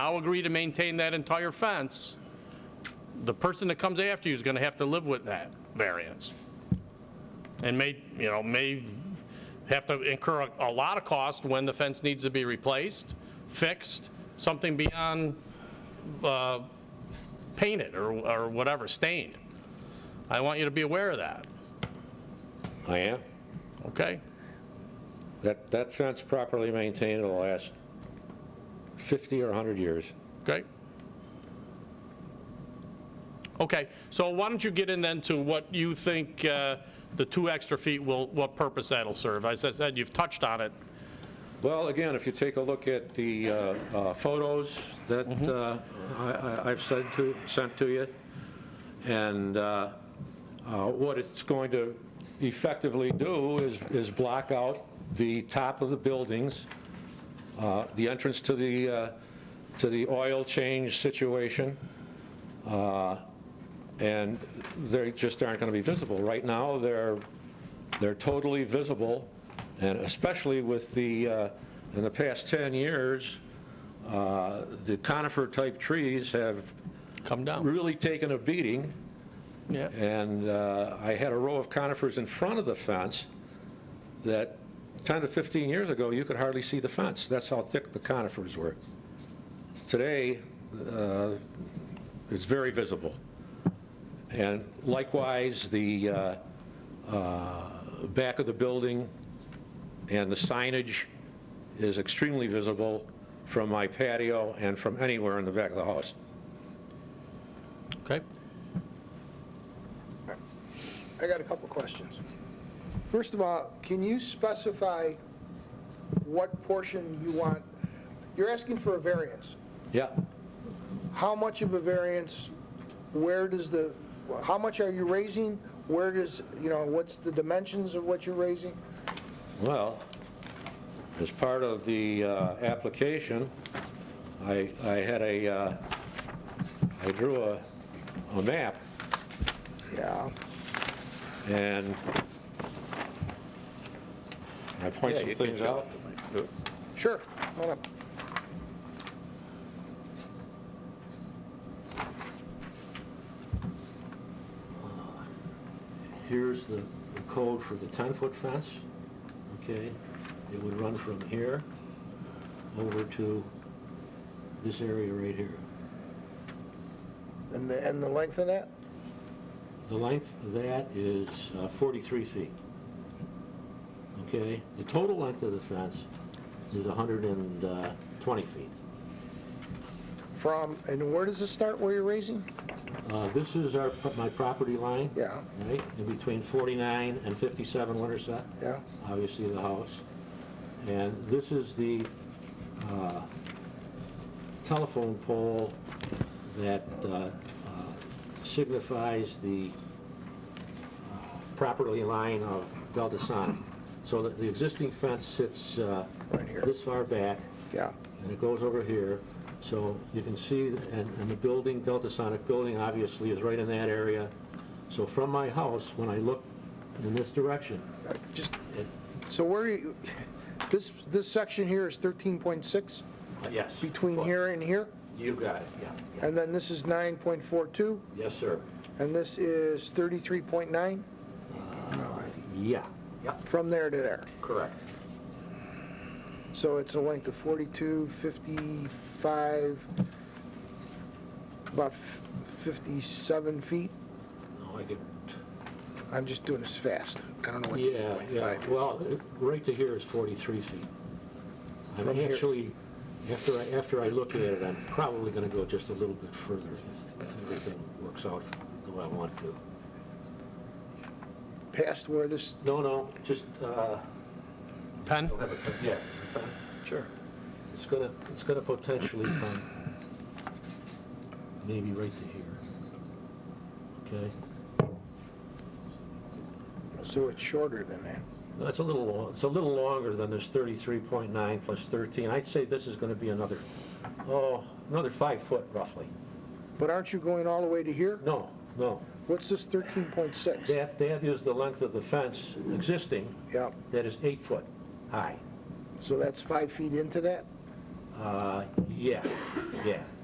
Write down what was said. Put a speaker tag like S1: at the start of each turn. S1: I'll agree to maintain that entire fence, the person that comes after you is going to have to live with that variance. And may, you know, may have to incur a- a lot of cost when the fence needs to be replaced, fixed, something beyond uh, painted or or whatever, stained. I want you to be aware of that,
S2: I am.
S1: okay?
S2: Oh, That, that fence properly maintained will last 50 or 100 years.
S1: Okay? Okay, so why don't you get in then to what you think uh, the two extra feet will, what purpose that'll serve? As I said, you've touched on it.
S2: Well, again, if you take a look at the uh, uh, photos that uh, I- I- I've sent to, sent to you, and uh, uh, what it's going to effectively do is, is block out the top of the buildings, uh, the entrance to the, uh, to the oil change situation, uh, and they just aren't going to be visible. Right now, they're they're totally visible, and especially with the, uh, in the past 10 years, uh, the conifer-type trees have
S1: Come down.
S2: really taken a beating,
S1: Yeah.
S2: and uh, I had a row of conifers in front of the fence that 10 to 15 years ago, you could hardly see the fence. That's how thick the conifers were. Today, uh, it's very visible. And likewise, the uh, uh, back of the building and the signage is extremely visible from my patio and from anywhere in the back of the house.
S1: Okay?
S3: I got a couple questions. First of all, can you specify what portion you want? You're asking for a variance.
S2: Yeah,
S3: How much of a variance? Where does the, how much are you raising? Where does, you know, what's the dimensions of what you're raising?
S2: well, as part of the uh, application, I, I had a, uh, I drew a, a map,
S3: Yeah.
S2: and I point
S4: Yeah,
S2: some
S4: you can
S2: things
S4: show
S2: out.
S3: Sure. Hold up.
S2: Here's the the code for the 10-foot fence, okay? It would run from here over to this area right here.
S3: And the, and the length of that?
S2: The length of that is uh, 43 feet, okay? The total length of the fence is 120 uh, feet.
S3: From, and where does it start, where you're raising?
S2: Uh, This is our, my property line.
S3: Yeah.
S2: Right, in between 49 and 57 Winterset.
S3: Yeah.
S2: obviously the house. And this is the uh, telephone pole that uh, uh, signifies the uh, property line of Delta Sonic. So that the existing fence sits uh,
S3: Right here.
S2: this far back,
S3: Yeah.
S2: and it goes over here. So you can see, and and the building, Delta Sonic building, obviously, is right in that area. So from my house, when I look in this direction,
S3: Uh, Just,
S2: it
S3: so where you, this, this section here is 13.6
S2: Yes.
S3: between here and here?
S2: You got it, yeah, yeah.
S3: And then this is 9.42,
S2: Yes, sir.
S3: and this is 33.9,
S2: Yeah. Yep.
S3: from there to there.
S2: Correct.
S3: So it's a length of 42, 55, about f- 57 feet.
S2: No, I get,
S3: I'm just doing this fast. I don't know what
S2: yeah, yeah.
S3: 2.5 is.
S2: Well, it- right to here is 43 feet. I'm
S3: From here.
S2: actually, after I, after I look at it, I'm probably going to go just a little bit further if if everything works out the way I want to.
S3: Past where this,
S2: No, no, just, uh,
S1: Pen?
S2: yeah.
S3: sure.
S2: It's going to, it's going to potentially come maybe right to here. Okay?
S3: So it's shorter than that.
S2: No, It's a little, lo- it's a little longer than this 33.9 plus 13. I'd say this is going to be another, oh, another five foot roughly.
S3: But aren't you going all the way to here?
S2: No, no.
S3: What's this 13.6?
S2: That, that is the length of the fence existing.
S3: Yep.
S2: That is eight foot high.
S3: So that's five feet into that?
S2: Uh, Yeah, yeah.